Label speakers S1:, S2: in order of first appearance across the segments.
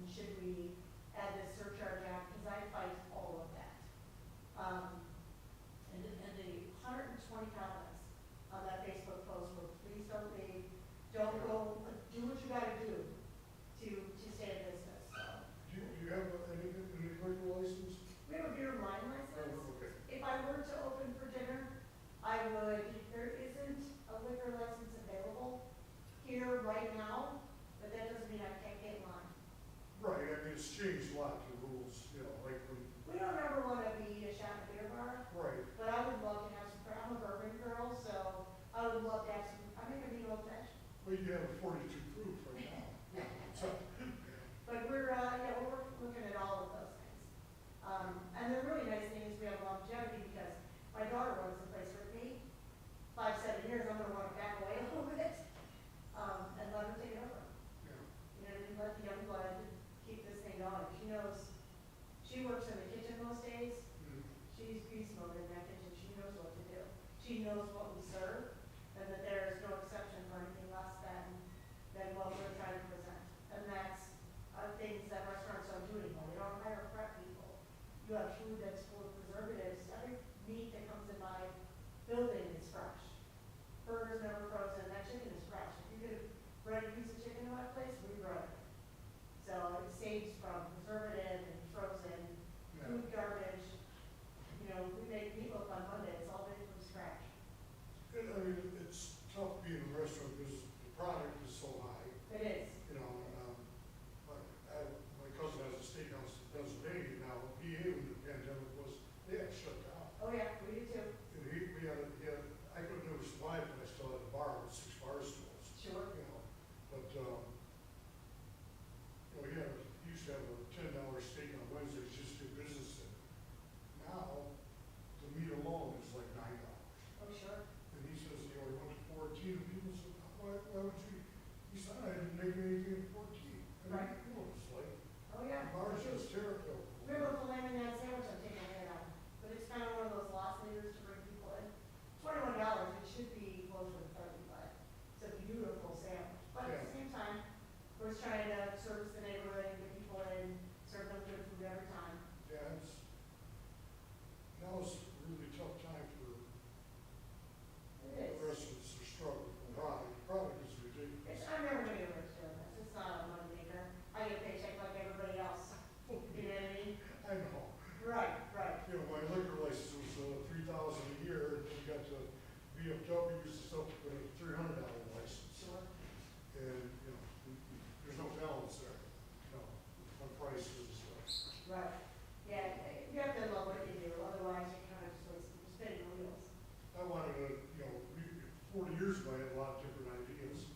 S1: Um, don't go, do what you gotta do to, to stay in business, so.
S2: Do you, do you have any, any liquor license?
S1: We have a beer and wine license.
S2: Okay.
S1: If I were to open for dinner, I would, there isn't a liquor license available here right now, but that doesn't mean I can't get one.
S2: Right, I mean, it's changed a lot, the rules, you know, like when,
S1: We don't ever wanna be a shot in a beer bar,
S2: right,
S1: but I would love to have some, I'm a bourbon girl, so I would love to have some, I think I need old fashioned.
S2: but you have a forty-two proof right now. So,
S1: But we're, uh, yeah, we're looking at all of those things. Um, and the really nice thing is we have longevity because my daughter runs the place with me. Five, seven years, I'm gonna wanna back away a little bit, um, and let her take it over.
S2: yeah,
S1: You know, and let the young blood keep this thing going. She knows, she works in the kitchen most days,
S2: mm,
S1: she's beast mode in that kitchen, she knows what to do. She knows what we serve, and that there is no exception for anything less than, than what we're trying to present. And that's, uh, things that restaurants don't do anymore, they don't hire prep people. You have food that's full of preservatives, every meat that comes in my building is fresh. Burgers never frozen, that chicken is fresh. If you could have bred a piece of chicken in my place, we bred it. So it saves from preservative and frozen
S2: yeah.
S1: food garbage, you know, we make meatloaf on Monday, it's all made from scratch.
S2: And I mean, it's tough being a restaurant because the product is so high,
S1: It is,
S2: you know, and, um, like, I, my cousin has a steakhouse in Pennsylvania now, he, when the pandemic was, they had shut down.
S1: oh yeah, we do too,
S2: And he, we had, a- he had, I couldn't have survived when I still had a bar with six bar stools.
S1: sure.
S2: you know, but, um, you know, you have, you used to have a ten dollar steak on Wednesdays just to do business in. Now, the meat alone is like nine dollars.
S1: Oh, sure.
S2: And he says, you know, he went to fourteen, and people said, why, why would you? He said, I didn't make anything at fourteen. And
S1: Right.
S2: you know, it's like,
S1: Oh, yeah.
S2: bars just terrible.
S1: Remember the lamb and that sandwich I'm taking ahead on, but it's kind of one of those lost leaders to bring people in. Twenty-one dollars, it should be closer to thirty, but it's a beautiful sandwich. But at the
S2: Yeah.
S1: same time, we're just trying to service the neighborhood and get people in, serve them good food every time.
S2: Yeah, it's, now it's a really tough time for
S1: It is.
S2: restaurants to struggle. Product, product is ridiculous.
S1: It's, I'm never gonna get rich doing this, it's not a money maker, I get a paycheck like everybody else, you know what I mean?
S2: I know.
S1: Right, right,
S2: You know, my liquor license was, uh, three thousand a year, and then you got the BMW, stuff with a three hundred dollar license,
S1: sure,
S2: and, you know, there's no balance there, you know, on prices and stuff.
S1: right. Yeah, you have to love what you do, otherwise you're kind of just wasting, you're spinning your wheels.
S2: I wanted to, you know, we- forty years ago, I had a lot of different ideas.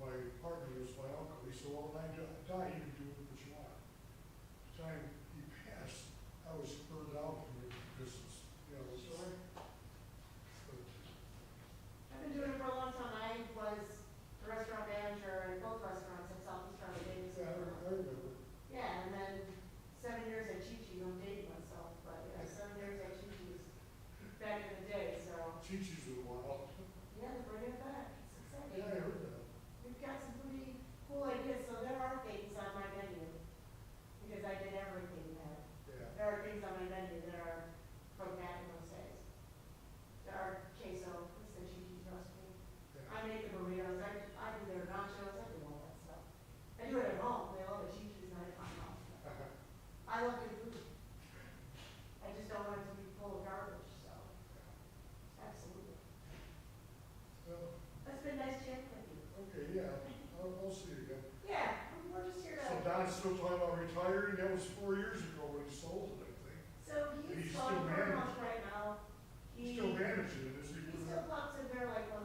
S2: My partner was my uncle, he said, well, when I di- die, you can do what you want. By The time he passed, I was burned out from the business, you know, so, but,
S1: I've been doing it for a long time, I was the restaurant manager in both restaurants in Southeast Round Davis.
S2: yeah, I- I remember.
S1: Yeah, and then seven years at Chi Chi, I'm dating myself, but yeah, seven years at Chi Chi's back in the day, so,
S2: Teaches in a while.
S1: yeah, they're bringing it back, it's
S2: Yeah,
S1: exciting.
S2: I heard that.
S1: We've got some pretty cool ideas, so there are things on my menu, because I did everything there.
S2: Yeah.
S1: There are things on my menu that are from back in those days. There are queso, it's the cheese recipe.
S2: yeah.
S1: I make the burritos, I, I do their nachos, I do all that stuff. I do it at home, they all the cheese is not at my house. I love good food. I just don't want it to be full of garbage, so, absolutely.
S2: Well,
S1: That's been nice chatting with you.
S2: Uh, Okay, yeah, I'll, I'll see you again.
S1: Yeah, we're just here to.
S2: So Don's still talking about retiring, that was four years ago when he sold it, I think.
S1: So
S2: He's
S1: he's
S2: still
S1: on pretty
S2: managing.
S1: much right now. He,
S2: He's still managing it, is he?
S1: he still pops in there like once